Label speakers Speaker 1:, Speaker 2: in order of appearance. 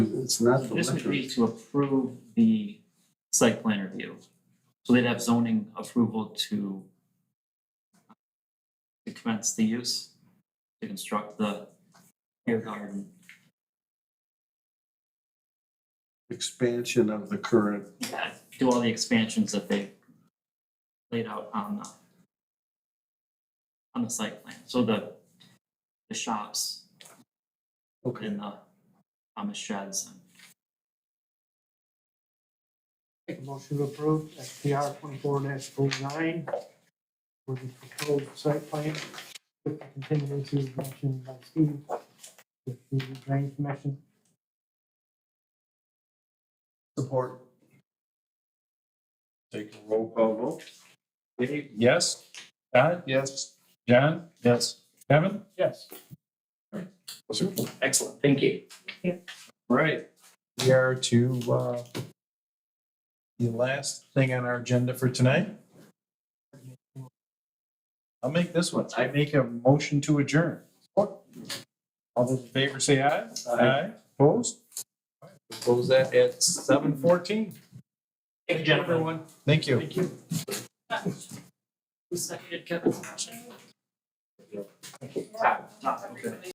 Speaker 1: It's not the
Speaker 2: This would
Speaker 1: liquor.
Speaker 2: be to approve the site plan review. So they'd have zoning approval to to commence the use, to construct the beer garden.
Speaker 1: Expansion of the current,
Speaker 2: Yeah, do all the expansions that they laid out on the on the site plan, so the the shops
Speaker 1: okay,
Speaker 2: and the um the sheds and
Speaker 3: Make a motion to approve SPR twenty-four 9 for the proposed site plan with the contingencies mentioned by Steve with the drain commission.
Speaker 1: support. Take a roll call vote.
Speaker 4: Dave, yes. Todd? Yes. John? Yes. Kevin?
Speaker 3: Yes.
Speaker 4: Excellent, thank you. Right, we are to, uh, the last thing on our agenda for tonight. I'll make this one. I make a motion to adjourn. All those in favor say aye. Aye. Opposed? Close that at seven fourteen.
Speaker 2: Thank you, gentlemen.
Speaker 4: Everyone, thank you.
Speaker 2: Who seconded Kevin's motion? Todd, Todd, okay.